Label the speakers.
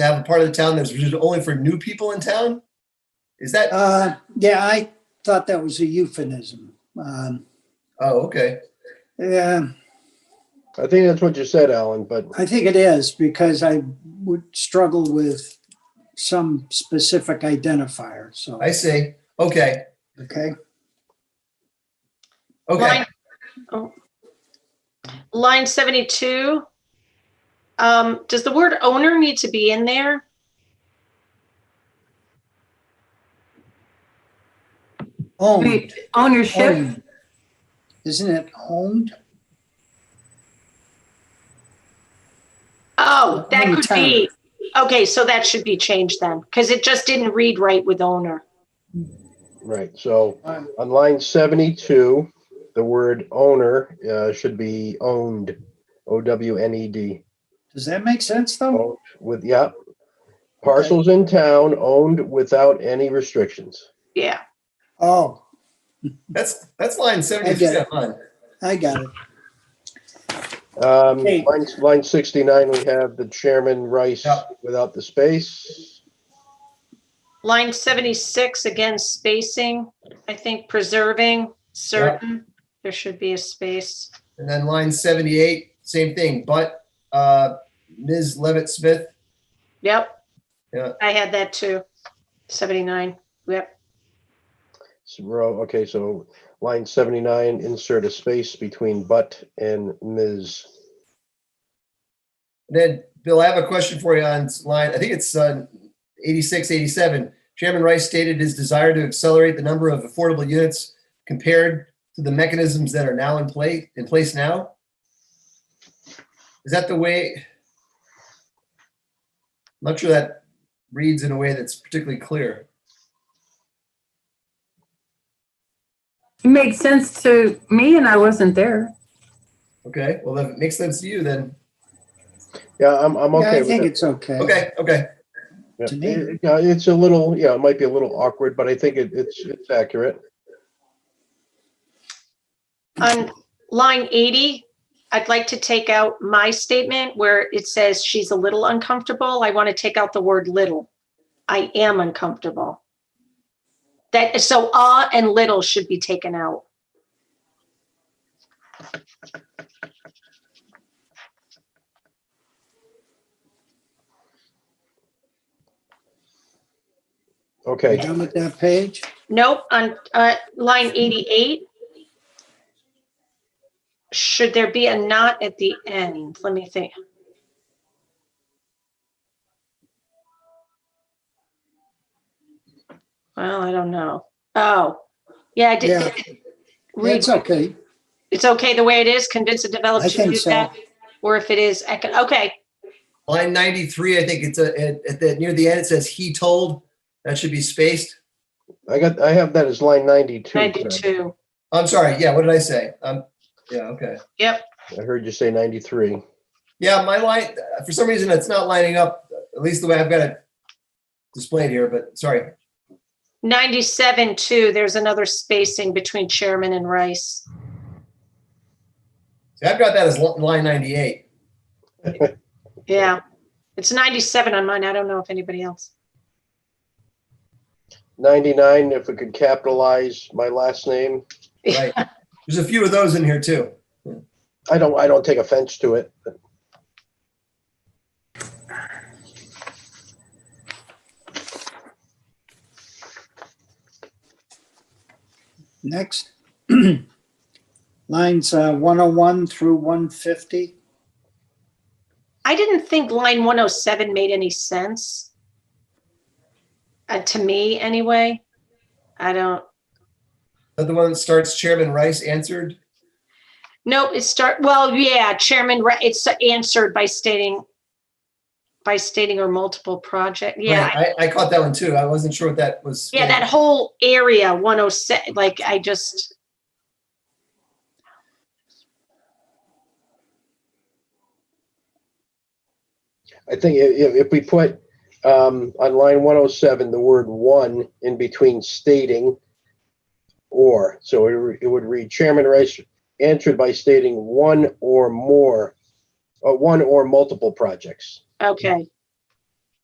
Speaker 1: to have a part of the town that's reserved only for new people in town? Is that,
Speaker 2: Uh, yeah, I thought that was a euphemism. Um,
Speaker 1: oh, okay.
Speaker 2: yeah,
Speaker 3: I think that's what you said, Alan, but
Speaker 2: I think it is because I would struggle with some specific identifier. So,
Speaker 1: I see. Okay,
Speaker 2: okay.
Speaker 1: okay.
Speaker 4: Line- oh. Line 72. Um, Does the word owner need to be in there?
Speaker 2: Owned,
Speaker 5: Wait, ownership?
Speaker 2: owned. Isn't it owned?
Speaker 4: Oh, that
Speaker 2: Owner
Speaker 4: could be. Okay, so that should be changed then, because it just didn't read right with owner.
Speaker 3: right, so
Speaker 2: Uh,
Speaker 3: on line seventy-two, the word owner uh, should be owned, O W N E D.
Speaker 2: Does that make sense though?
Speaker 3: Owned with yeah, parcels in town owned without any restrictions.
Speaker 4: Yeah,
Speaker 2: Oh,
Speaker 1: That's, that's line
Speaker 2: I get
Speaker 1: 77.
Speaker 2: I got it.
Speaker 3: Um,
Speaker 2: Okay.
Speaker 3: line, line sixty-nine, we have the chairman Rice
Speaker 1: Yeah.
Speaker 3: without the space.
Speaker 4: line 76, again, spacing, I think preserving, certain, there should be a space.
Speaker 1: And then line 78, same thing, but uh Ms. Levitt Smith,
Speaker 4: Yep.
Speaker 1: Yeah.
Speaker 4: I had that too. 79, yep.
Speaker 3: So, row- okay, so line seventy-nine, insert a space between but and Ms.
Speaker 1: Then, Bill, I have a question for you on line, I think it's uh, 86, 87. Chairman Rice stated his desire to accelerate the number of affordable units compared to the mechanisms that are now in play, in place now. Is that the way? I'm Not sure that reads in a way that's particularly clear.
Speaker 5: It Made sense to me and I wasn't there.
Speaker 1: Okay, well, if it makes sense to you, then,
Speaker 3: Yeah, I'm, I'm
Speaker 2: Yeah,
Speaker 3: okay
Speaker 2: I
Speaker 3: with
Speaker 2: think
Speaker 3: that.
Speaker 2: it's okay.
Speaker 1: okay, okay,
Speaker 3: Yeah,
Speaker 2: To me.
Speaker 3: it- yeah, it's a little, yeah, it might be a little awkward, but I think it, it's, it's accurate.
Speaker 4: On line 80, I'd like to take out my statement where it says she's a little uncomfortable. I want to take out the word little. I am uncomfortable. That, so ah and little should be taken out.
Speaker 2: You
Speaker 3: Okay,
Speaker 2: done with that page?
Speaker 4: Nope, on, uh, line 88. Should there be a not at the end? Let me think. Well, I don't know. Oh, yeah, I
Speaker 2: Yeah.
Speaker 4: did. Read,
Speaker 2: It's okay.
Speaker 4: it's okay the way it is, convince a developer
Speaker 2: I
Speaker 4: to
Speaker 2: think
Speaker 4: do
Speaker 2: so.
Speaker 4: that? Or if it is, I can, okay,
Speaker 1: line 93, I think it's a, at, at the, near the end, it says he told, that should be spaced.
Speaker 3: I got, I have that as line ninety-two. correct?
Speaker 4: 92.
Speaker 1: I'm sorry, yeah, what did I say? Um, yeah, okay.
Speaker 3: I heard you say ninety-three.
Speaker 1: Yeah, my line, for some reason, it's not lining up, at least the way I've got it displayed here, but sorry.
Speaker 4: 97 too, there's another spacing between chairman and Rice.
Speaker 1: See, I've got that as li- line 98.
Speaker 4: Yeah, it's 97 on mine. I don't know if anybody else.
Speaker 3: Ninety-nine, if we could capitalize my last name.
Speaker 1: Right. There's a few of those in here too.
Speaker 3: I don't, I don't take offense to it.
Speaker 2: Next. Lines uh, 101 through 150.
Speaker 4: I didn't think line 107 made any sense. Uh, to me, anyway. I don't.
Speaker 1: But the one that starts Chairman Rice answered,
Speaker 4: No, it start. Well, yeah, Chairman. Ra- It's answered by stating, by stating or multiple project. Yeah,
Speaker 1: Right, I, I caught that one too. I wasn't sure what that was.
Speaker 4: yeah. That whole area 107. Like I just.
Speaker 3: I think i- i- if, we put, um, on line one oh seven, the word one in between stating or, so it, re- it would read Chairman Rice answered by stating one or more, uh, one or multiple projects.
Speaker 4: Okay.